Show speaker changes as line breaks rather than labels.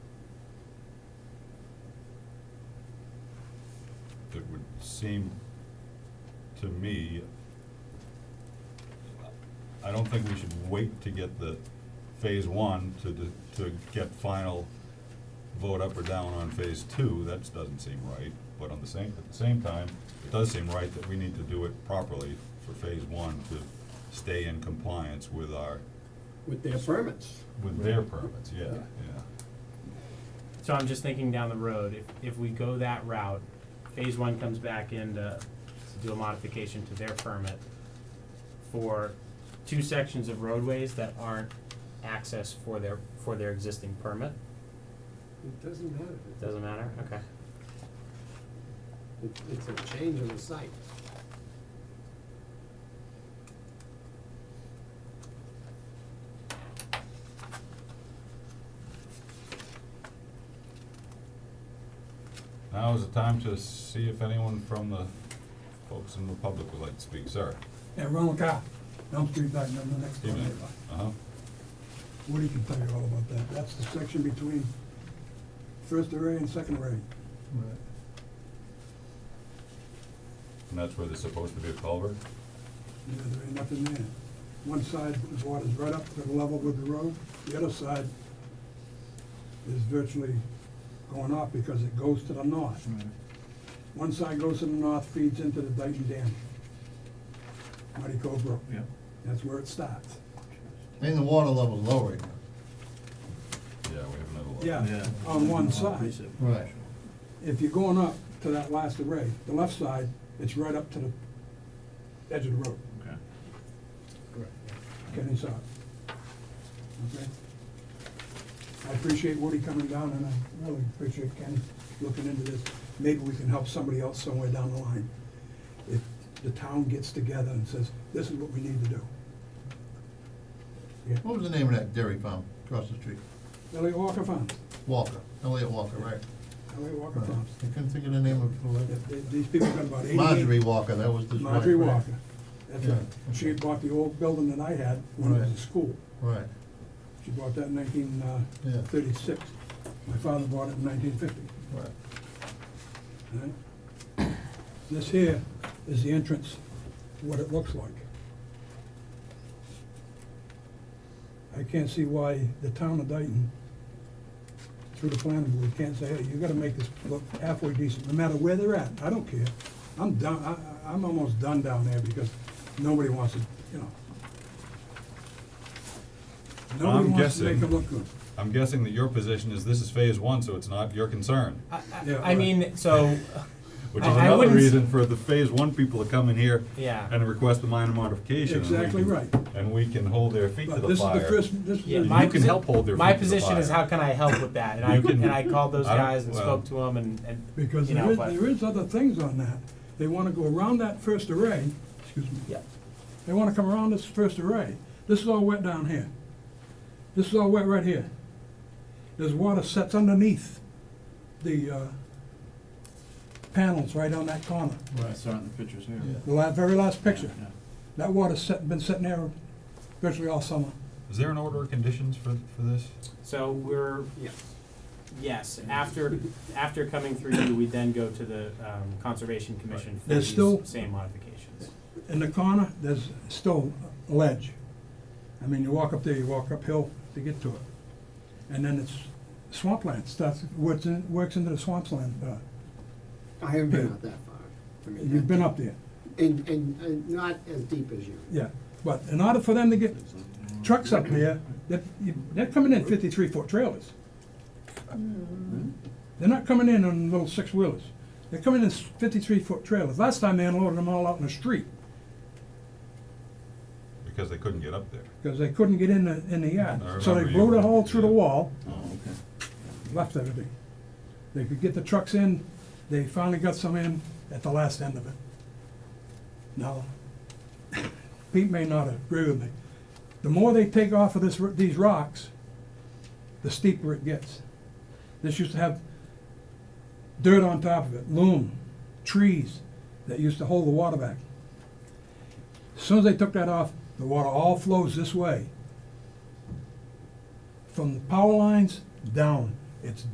it would seem to me, I don't think we should wait to get the phase one to, de- to get final vote up or down on phase two, that doesn't seem right. But on the same, at the same time, it does seem right that we need to do it properly for phase one to stay in compliance with our,
with their permits.
with their permits, yeah,
Yeah.
yeah.
So I'm just thinking down the road, if, if we go that route, phase one comes back in to, to do a modification to their permit for two sections of roadways that aren't access for their, for their existing permit,
It doesn't matter.
doesn't matter, okay.
It- It's a change of the site.
Now is the time to see if anyone from the folks in the public would like to speak, sir.
And Ronald Cow, Elm Street back, number next door
Stephen?
neighbor.
Uh-huh,
Woody can tell you all about that. That's the section between first array and second array.
and that's where there's supposed to be a culvert?
Yeah, there ain't nothing there. One side, the water's right up to the level with the road. The other side is virtually going off because it goes to the north. One side goes to the north, feeds into the Dayton Dam. Muddy Cove Brook.
Yeah.
That's where it starts.
And the water level lowering.
Yeah, we have another one.
Yeah, on one side.
Right.
if you're going up to that last array, the left side, it's right up to the edge of the road,
Okay.
getting south. Okay? I appreciate Woody coming down, and I really appreciate Ken looking into this. Maybe we can help somebody else somewhere down the line. If the town gets together and says, this is what we need to do. Yeah,
What was the name of that dairy farm across the street?
Elliot Walker Farms,
Walker, Elliot Walker, right?
Elliot Walker
Right.
Farms.
I couldn't think of the name of
Yeah,
it.
they- These people got about eighty.
Marjorie Walker, that was the.
Marjorie Walker. That's
Yeah,
right. She had bought the old building that I had when it was
Right.
a school.
Right,
She bought that in nineteen uh,
Yeah.
thirty-six. My father bought it in nineteen fifty.
right.
This here is the entrance, what it looks like. I can't see why the town of Dayton, through the planning board, can't say, hey, you gotta make this look halfway decent, no matter where they're at. I don't care. I'm done, I, I- I'm almost done down there because nobody wants to, you know. Nobody
I'm
wants to make
guessing-
it look good.
I'm guessing that your position is this is phase one, so it's not your concern,
I,
Yeah,
I, I
right.
mean, so, uh,
which is
I- I
another
wouldn't s-
reason for the phase one people to come in here
yeah,
and request a minor modification. and we
Exactly
can-
right.
And we can hold their feet to
But
the
this is the
fire.
first, this is
Yeah,
the-
My
You can
posi-
help hold their feet to the fire.
my position is how can I help with that? And I,
You can-
and I called those
I don't-
guys and
well-
spoke to them and, and,
Because
you
there
know,
is,
but,
there is other things on that. They wanna go around that first array, excuse me.
Yeah.
They wanna come around this first array. This is all wet down here. This is all wet right here. There's water sets underneath the, uh, panels right on that corner.
I saw it in the pictures here.
Yeah.
The la, very last picture.
Yeah.
That water's set, been sitting there virtually all summer.
Is there an order of conditions for, for this?
so we're,
Yes.
Yes, after, after coming through you, we then go to the um, Conservation Commission for
There's
these
still-
same modifications.
In the corner, there's still a ledge. I mean, you walk up there, you walk uphill to get to it. And then it's swampland, starts, works, in- works into the swampland. uh,
I haven't been out that far. I mean,
You've been
that-
up there,
And, and, and not as deep as you.
yeah. But in order for them to get trucks up there, they're, you- they're coming in fifty-three foot trailers. They're not coming in on little six-wheelers. They're coming in s- fifty-three foot trailers. Last time they unloaded them all out in the street
Because they couldn't get up there.
because they couldn't get in the, in the yard.
I
So they
remember you-
blew the hole through the
yeah.
wall
Oh, okay.
left everything. They could get the trucks in, they finally got some in at the last end of it. Now, Pete may not agree with me. The more they take off of this, r- these rocks, the steeper it gets. This used to have dirt on top of it, loam, trees that used to hold the water back. As Soon as they took that off, the water all flows this way. From the power lines down, it's